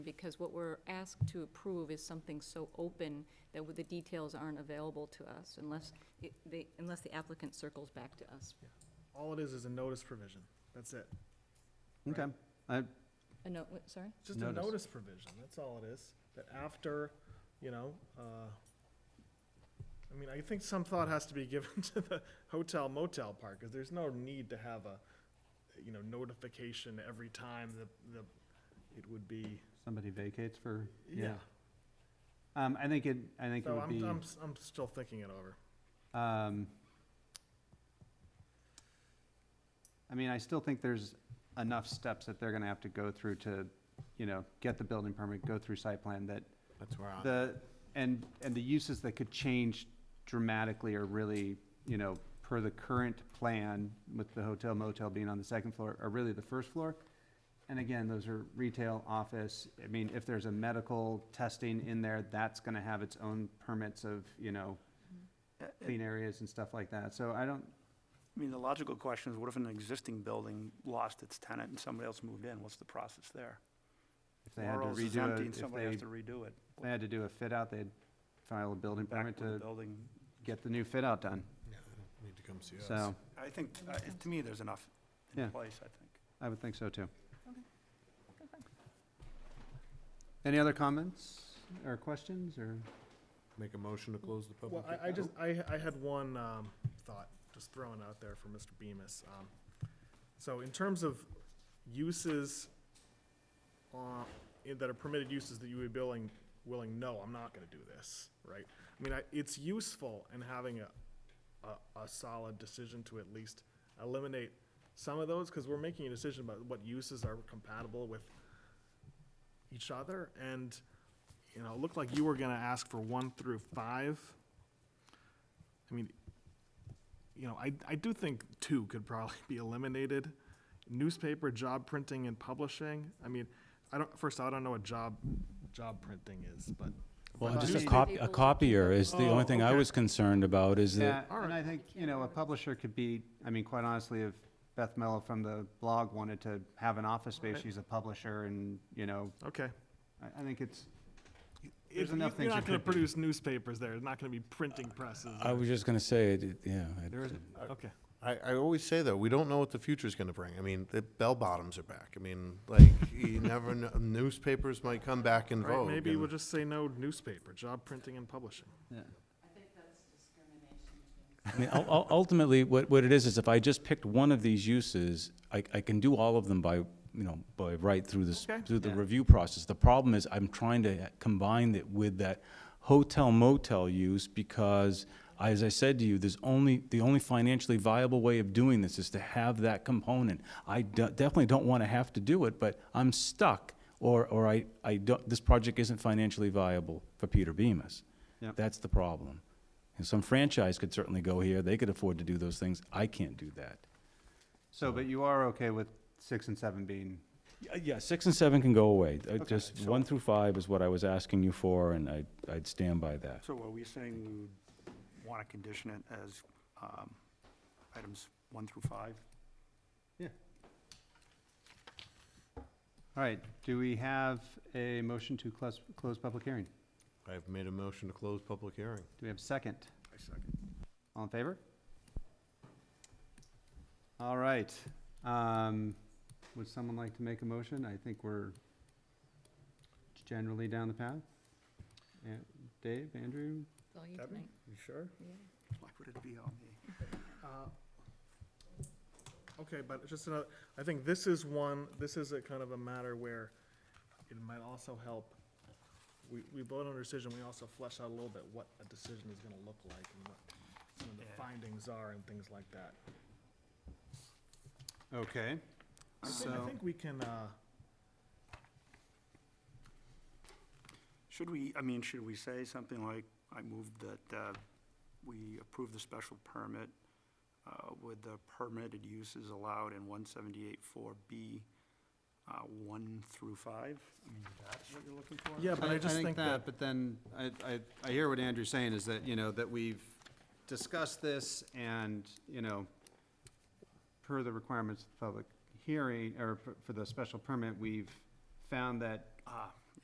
because what we're asked to approve is something so open that the details aren't available to us unless, it- they- unless the applicant circles back to us. All it is is a notice provision. That's it. Okay, I, Uh, No, wait, sorry? It's Just a Notice. notice provision, that's all it is. That after, you know, uh, I mean, I think some thought has to be given to the hotel motel part, because there's no need to have a, you know, notification every time the, the, it would be, somebody vacates for, yeah. yeah. Um, I think it, I think it So would I'm, be, I'm, s- I'm still thinking it over. um, I mean, I still think there's enough steps that they're gonna have to go through to, you know, get the building permit, go through site plan, that That's where I'm, the, and, and the uses that could change dramatically are really, you know, per the current plan with the hotel motel being on the second floor, are really the first floor. And again, those are retail, office, I mean, if there's a medical testing in there, that's gonna have its own permits of, you know, clean areas and stuff like that, so I don't, I mean, the logical question is, what if an existing building lost its tenant and somebody else moved in? What's the process there? if they had to Or else it's redo empty it, and if somebody they, has to redo it. they had to do a fit out, they'd file a building Back permit with the to building. get the new fit out done, yeah, they don't need to come see us. so, I think, uh, it- to me, there's enough Yeah. in place, I think. I would think so too. Any other comments or questions or? Make a motion to close the public. Well, I, I hea- just, I, I had one, um, thought, just throwing out there for Mr. Bemis. Um, So in terms of uses, uh, in- that are permitted uses that you would be willing, willing, no, I'm not gonna do this, right? I mean, I, it's useful in having a, a, a solid decision to at least eliminate some of those, cause we're making a decision about what uses are compatible with each other, and, you know, it looked like you were gonna ask for one through five. I mean, you know, I, I do think two could probably be eliminated. Newspaper, job printing and publishing, I mean, I don't, first, I don't know what job, job printing is, but. Well, but just a Newspaper. copy, a copier is the Oh, only thing I okay. was concerned about is Yeah, that, and I think, you know, a publisher could be, I mean, quite honestly, if Beth Mello from the blog wanted to have an office space, Right. she's a publisher and, you know, Okay. I, I think it's, If you- enough things You're that not gonna could be. produce newspapers there, there's not gonna be printing presses. I was just gonna say, it- it- yeah. it- there is, Okay. I, I always say though, we don't know what the future's gonna bring. I mean, the bell bottoms are back. I mean, like, you never know, newspapers might come back in All right, vogue. maybe and- we'll just say no newspaper, job printing and publishing. yeah. I mean, ul- ul- ultimately, what, what it is, is if I just picked one of these uses, I, I can do all of them by, you know, by right through this, Okay. through the Yeah. review process. The problem is I'm trying to combine it with that hotel motel use because, as I said to you, there's only, the only financially viable way of doing this is to have that component. I de- definitely don't want to have to do it, but I'm stuck or, or I, I don't, this project isn't financially viable for Peter Bemis. Yep. That's the problem. And some franchise could certainly go here, they could afford to do those things, I can't do that. So, but you are okay with six and seven being, Yeah, Yeah, six and seven can go away, Uh, just one through five is what I was asking you for, and I, I'd stand by that. So are we saying we would want to condition it as um, items one through five? all right, do we have a motion to close, close public hearing? I've made a motion to close public hearing. Do we have a second? I second. All in favor? All right. Um, would someone like to make a motion? I think we're generally down the path. Yeah, Dave, Andrew? It's all you Debbie? tonight. You sure? Yeah. Why would it be on the, Uh, Okay, but it's just another, I think this is one, this is a kind of a matter where it might also help. We, we vote on a decision, we also flesh out a little bit what a decision is gonna look like and what some of the Yeah. findings are and things like that. Okay. I thi- I So- think we can, uh, should we, I mean, should we say something like, I move that uh, we approve the special permit uh, with the permitted uses allowed in one seventy-eight four B, uh, one through five? I mean, that's what you're looking for? yeah, but I just think that, But then, I, I, I hear what Andrew's saying is that, you know, that we've discussed this and, you know, per the requirements of the public hearing, or for- for the special permit, we've found that Ah,